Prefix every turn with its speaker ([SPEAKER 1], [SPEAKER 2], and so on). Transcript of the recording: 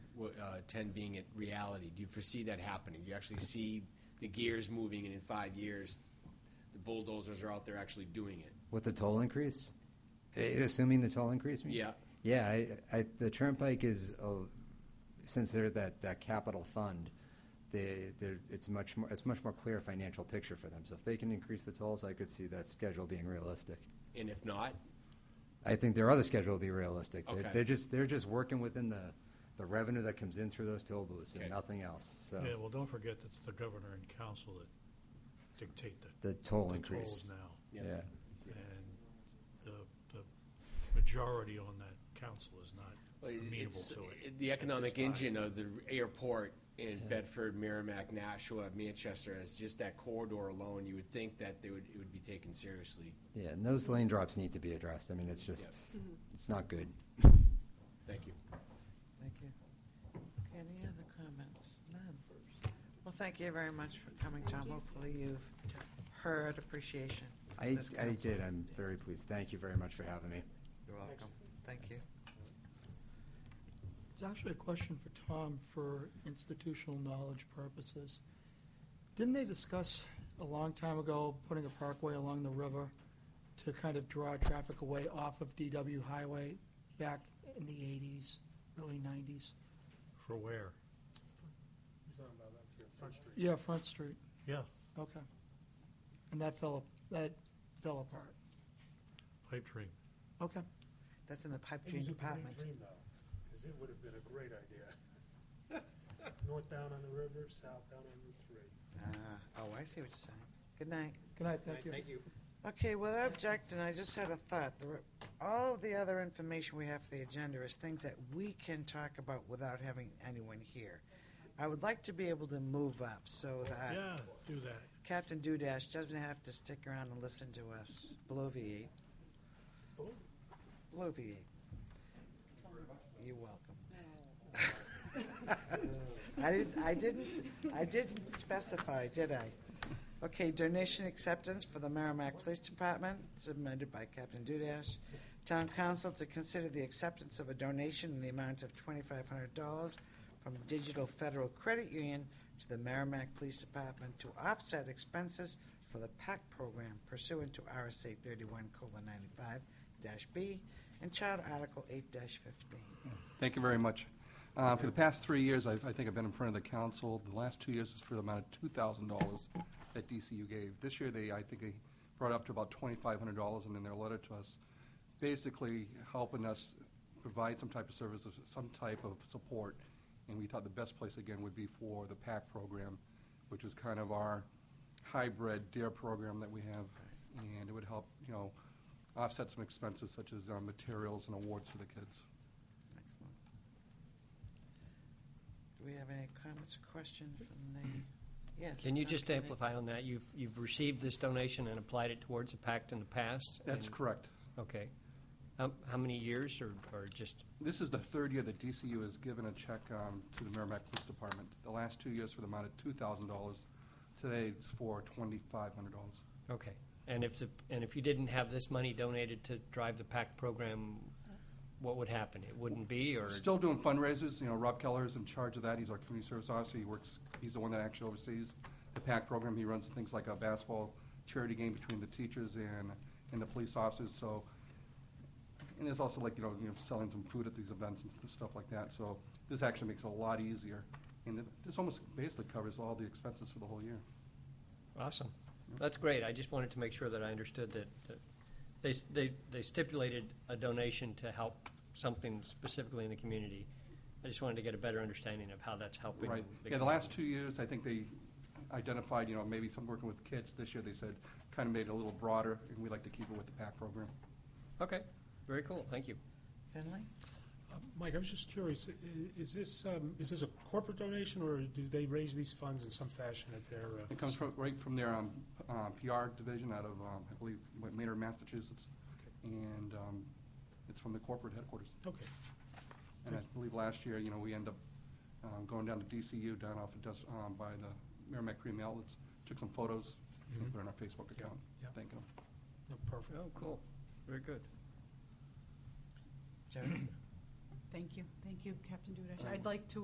[SPEAKER 1] uh, ten being at reality? Do you foresee that happening? Do you actually see the gears moving, and in five years, the bulldozers are out there actually doing it?
[SPEAKER 2] With the toll increase? Eh, Assuming the toll increase? you mean?
[SPEAKER 1] Yeah.
[SPEAKER 2] Yeah, I, I, the turnpike is, uh, since they're that, that capital fund, they, they're, it's much more, it's much more clear financial picture for them. So if they can increase the tolls, I could see that schedule being realistic.
[SPEAKER 1] And if not,
[SPEAKER 2] I think their other schedule will be realistic. They're-
[SPEAKER 1] Okay.
[SPEAKER 2] They're just, they're just working within the, the revenue that comes in through those toll booths and
[SPEAKER 1] Okay.
[SPEAKER 2] nothing else, so.
[SPEAKER 3] Yeah, well, don't forget, it's the governor and council that dictate the
[SPEAKER 2] The toll
[SPEAKER 3] the
[SPEAKER 2] increase.
[SPEAKER 3] tolls now.
[SPEAKER 1] Yeah.
[SPEAKER 2] Yeah,
[SPEAKER 3] And the, the majority on that council is not
[SPEAKER 1] Well, it-
[SPEAKER 3] amenable
[SPEAKER 1] It's,
[SPEAKER 3] to it.
[SPEAKER 1] it- the economic
[SPEAKER 3] time.
[SPEAKER 1] engine of the airport in Bedford, Merrimack, Nashua, Manchester, as just that corridor alone, you would think that they would, it would be taken seriously.
[SPEAKER 2] yeah, and those lane drops need to be addressed. I mean, it's just, it's not good.
[SPEAKER 1] Thank you.
[SPEAKER 4] Thank you. Okay, Any other comments? None. Well, thank you very much for coming, Tom. Hopefully you've heard appreciation
[SPEAKER 2] I,
[SPEAKER 4] from this
[SPEAKER 2] I
[SPEAKER 4] council.
[SPEAKER 2] did, I'm very pleased. Thank you very much for having me.
[SPEAKER 4] You're welcome. Thank you.
[SPEAKER 5] It's actually a question for Tom for institutional knowledge purposes. Didn't they discuss a long time ago putting a parkway along the river to kind of draw traffic away off of DW Highway back in the 80s, early 90s?
[SPEAKER 3] For where?
[SPEAKER 5] Yeah, Front Street,
[SPEAKER 3] Yeah,
[SPEAKER 5] okay. And that fell, that fell apart.
[SPEAKER 3] pipe dream.
[SPEAKER 5] Okay,
[SPEAKER 4] That's in the pipe
[SPEAKER 6] It
[SPEAKER 4] dream
[SPEAKER 6] was a
[SPEAKER 4] department.
[SPEAKER 6] Dream though, because it would have been a great idea. North down on the river, south down on Route Three.
[SPEAKER 4] Ah, Oh, I see what you're saying. Good night.
[SPEAKER 5] good night, thank you.
[SPEAKER 6] you.
[SPEAKER 4] Okay, well, I object, and I just had a thought. There are- All of the other information we have for the agenda is things that we can talk about without having anyone here. I would like to be able to move up so that
[SPEAKER 3] Yeah, do that.
[SPEAKER 4] Captain Dudash doesn't have to stick around and listen to us bloviate. Bloviate. You're welcome. I didn't, I didn't, I didn't specify, did I? Okay, donation acceptance for the Merrimack Police Department, submitted by Captain Dudash. Town Council to consider the acceptance of a donation in the amount of twenty-five hundred dollars from Digital Federal Credit Union to the Merrimack Police Department to offset expenses for the PAC program pursuant to RSA thirty-one colon ninety-five dash B and Child Article eight dash fifteen.
[SPEAKER 7] Thank you very much. Uh, For the past three years, I've- I think I've been in front of the council. The last two years is for the amount of $2,000 that DCU gave. This year, they, I think they brought up to about $2,500 and in their letter to us, basically helping us provide some type of services, some type of support. And we thought the best place, again, would be for the PAC program, which is kind of our hybrid DARE program that we have. And it would help, you know, offset some expenses such as uh, materials and awards for the kids.
[SPEAKER 4] Excellent. Do we have any comments or questions from the, yes?
[SPEAKER 8] Can you just
[SPEAKER 4] Dr. Nick?
[SPEAKER 8] amplify on that? You've, you've received this donation and applied it towards the pact in the past?
[SPEAKER 7] That's
[SPEAKER 8] and-
[SPEAKER 7] correct.
[SPEAKER 8] Okay. Um, How many years or, or just,
[SPEAKER 7] This is the third year that DCU has given a check um, to the Merrimack Police Department. The last two years for the amount of $2,000. Today, it's for $2,500.
[SPEAKER 8] okay. And if the, and if you didn't have this money donated to drive the pact program, what would happen? It wouldn't be or?
[SPEAKER 7] Still doing fundraisers, you know, Rob Keller is in charge of that, he's our community service officer, he works, he's the one that actually oversees the PAC program, he runs things like a basketball charity game between the teachers and, and the police officers, so, and there's also like, you know, you know, selling some food at these events and stuff like that, so this actually makes it a lot easier, and it- this almost basically covers all the expenses for the whole year.
[SPEAKER 8] Awesome. That's great. I just wanted to make sure that I understood that, that they, they, they stipulated a donation to help something specifically in the community. I just wanted to get a better understanding of how that's helping.
[SPEAKER 7] Right. Yeah, the last two years, I think they identified, you know, maybe some working with kids. This year, they said, kind of made it a little broader, and we like to keep it with the PAC program.
[SPEAKER 8] Okay, very cool. Thank you.
[SPEAKER 4] Finley?
[SPEAKER 6] Uh, Mike, I was just curious, i- i- is this, um, is this a corporate donation, or do they raise these funds in some fashion at their? uh,
[SPEAKER 7] It comes from, right from their um, uh, PR division out of, um, I believe, what, Maynard, Massachusetts, and um, it's from the corporate headquarters.
[SPEAKER 6] Okay,
[SPEAKER 7] And I believe last year, you know, we end up um, going down to DCU, down off of, Des- um, by the Merrimack Cream Outlets, took some photos, and
[SPEAKER 6] Mhm.
[SPEAKER 7] put it on our Facebook account,
[SPEAKER 6] yeah.
[SPEAKER 7] thanking them.
[SPEAKER 6] no, perfect.
[SPEAKER 8] Oh, cool. Very good.
[SPEAKER 4] Jody?
[SPEAKER 9] Thank you, thank you, Captain Dudash.
[SPEAKER 7] Um,
[SPEAKER 9] I'd like to